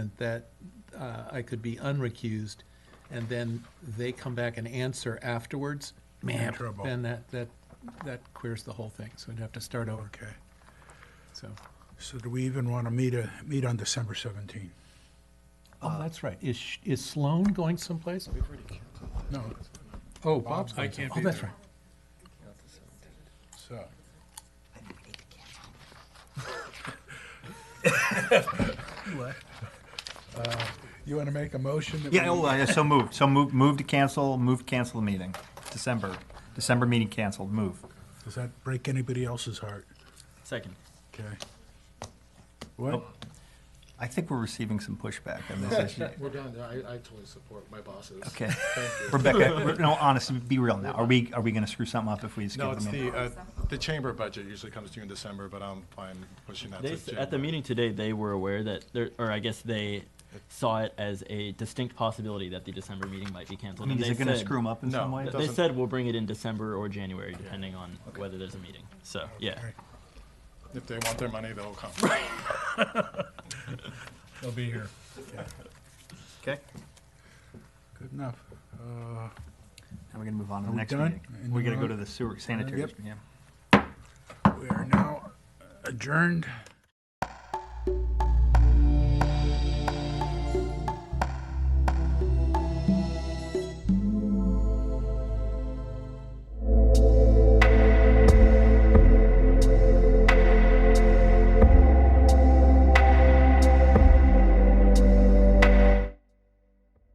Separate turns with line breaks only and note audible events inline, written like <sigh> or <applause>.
argument that uh, I could be unrecused, and then they come back and answer afterwards, man,
trouble.
then that, that, that queers the whole thing, so I'd have to start over,
Okay,
so.
so do we even want to meet, uh, meet on December 17?
Oh, that's right, is, Sh- is Sloan going someplace?
No,
Oh, Bob's
I
going.
can't
some-
be
Oh, that's
there.
right.
so, you want to make a motion? that
Yeah,
we-
oh, uh, so moved, so move, move to cancel, move to cancel the meeting, December, December meeting canceled, move.
Does that break anybody else's heart?
Second.
Okay. What?
I think we're receiving some pushback on this
<laughs>
issue.
We're done, I, I totally support my bosses.
Okay, Rebecca, re- no, honestly, be real now, are we, are we gonna screw something up if we just
No,
give
it's
them
the,
in?
uh, the chamber budget usually comes to you in December, but I'm fine pushing that
They,
to
s- at the
January.
meeting today, they were aware that, there, or I guess they saw it as a distinct possibility that the December meeting might be
I
canceled.
mean,
and
is
they
it gonna
said-
screw them up in
No.
some way?
th- They
doesn't-
said we'll bring it in December or January, depending on whether there's a meeting, so, yeah.
Okay.
If they want their money, they'll come.
They'll be here.
Okay,
Good enough. Uh,
now we're gonna move on
Are
to the
we
next
done?
meeting.
And
We're
you
gonna go
Uh,
wanna-
to the sewer sanitary,
Yep.
district, yeah.
We are now adjourned